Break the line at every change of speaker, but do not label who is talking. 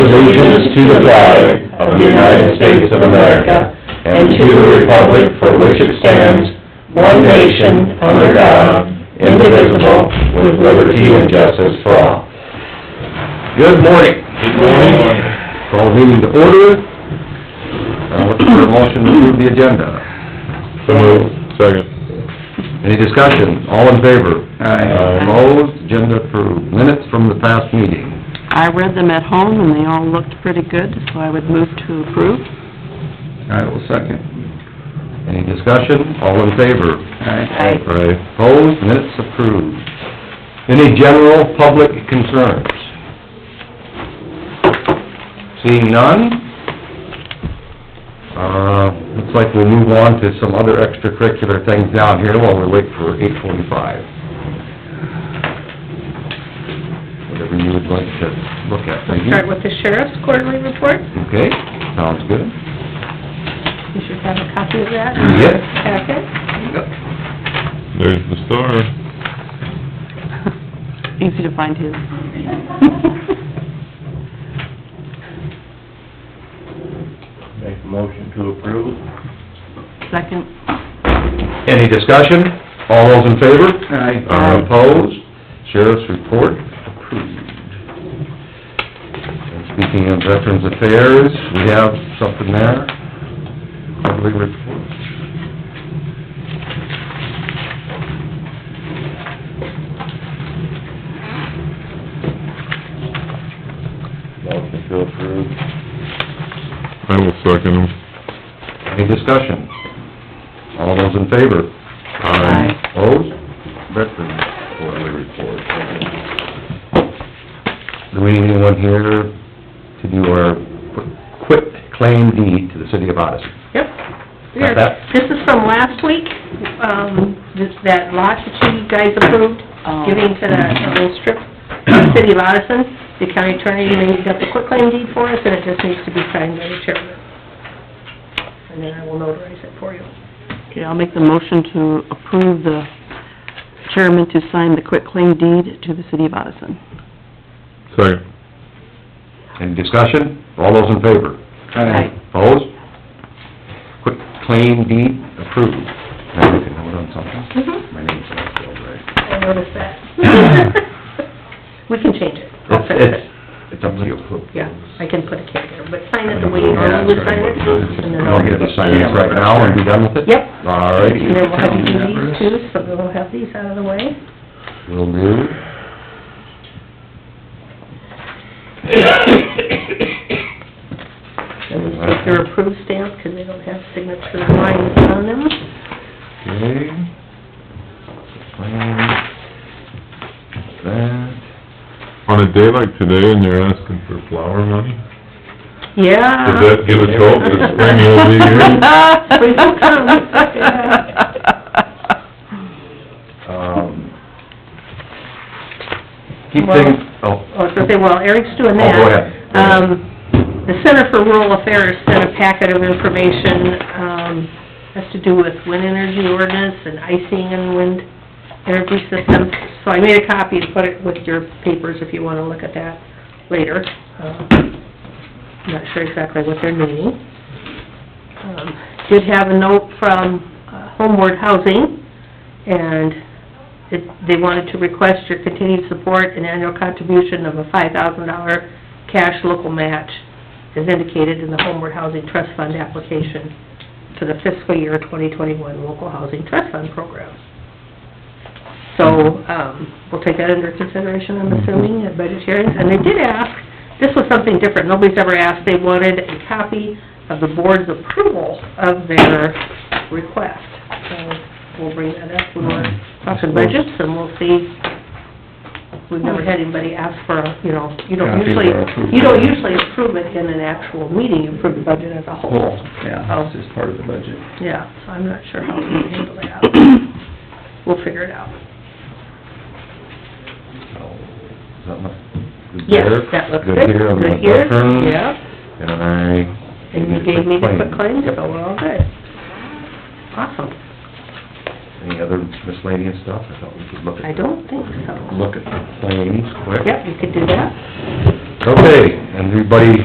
allegiance to the flag of the United States of America and to the republic for which it stands, one nation, under God, indivisible, with liberty and justice for all. Good morning. Good morning. Call meeting to order. Uh, look for a motion to approve the agenda. So Second. Any discussion? All in favor? Aye. Opposed? Agenda approved. Minutes from the past meeting.
I read them at home and they all looked pretty good, so I would move to approve.
I will second. Any discussion? All in favor?
Aye. Aye.
Aye. Opposed? Minutes approved. Any general public concerns? Seeing none? Uh, looks like we'll move on to some other extracurricular things down here while we wait for eight forty-five. Whatever you would like to look at, thank you.
Start with the sheriff's quarterly report.
Okay, sounds good.
You should have a copy of that.
Yes.
Packet.
There's the star.
Easy to find his.
Make a motion to approve.
Second.
Any discussion? All those in favor?
Aye.
Uh, Opposed? Sheriff's report approved. And Speaking of Veterans Affairs, we have something there. Quarterly report.
Motion to approve.
I will second him.
Any discussion? All those in favor?
Aye.
Opposed? Veterans quarterly report. Do we need anyone here to do our qu- quit claim deed to the city of Odison?
Yep.
Got that?
This is from last week, um, this- that lot that you guys approved,
Oh.
giving to the little strip, of city of Addison. The county attorney made up the quitclaim deed for us, and it just needs to be signed by the chairman. And then I will notarize it for you.
Okay, I'll make the motion to approve the chairman to sign the quitclaim deed to the city of Odison.
Second.
Any discussion? All those in favor?
Aye.
Opposed? Quick claim deed approved. Now you can hold on something.
Mhm.
My name's not spelled right.
I noticed that. We can change it. I'll
It's,
fix it.
it's, it's up to you.
Yeah, I can put a kid there, but sign it the way you normally would sign it. and then
I'll
I'll-
get to sign it right now and be done with it?
Yep.
All
And then we'll
right,
have you do these too, so we'll have these out of the way.
will do.
And then take
Uh-huh.
your approved stamp, because they don't have signature lines on them.
Okay. Claim. That.
On a day like today and you're asking for flower money, does
Yeah.
that give us hope that spring will be here?
Spring will come.
Um, keep things, oh,
Oh, so they, well, Eric's doing
Oh,
that.
go ahead.
Um, the Center for Rural Affairs sent a packet of information, um, has to do with wind energy ordinance and icing and wind energy systems. So I made a copy and put it with your papers if you wanna look at that later. Uh, Not sure exactly what they're meaning. Um, Did have a note from uh, Homeward Housing, and it, they wanted to request your continued support and annual contribution of a five thousand dollar cash local match as indicated in the Homeward Housing Trust Fund application to the fiscal year twenty twenty-one local housing trust fund program. So, um, we'll take that under consideration, I'm assuming, at budget hearings, and they did ask, this was something different, nobody's ever asked, they wanted a copy of the board's approval of their request. So, we'll bring that up when we're talking budgets, and we'll see. We've never had anybody ask for, a you know, you don't
Copy of
usually,
our approval.
you don't usually approve it in an actual meeting, you approve the budget as a whole.
Yeah, it's just part of the budget.
Yeah, so I'm not sure how we handle that. We'll figure it out.
is that my, good
Yes,
there?
that looks good.
Good here on the
Good here.
veterans.
Yep,
And I...
and you gave me the quick claim,
Yep.
so we're all good. Awesome.
Any other miscellaneous stuff? I thought we could look at...
I don't think so.
Look at the claims quick.
Yep, you could do that.
Okay, and everybody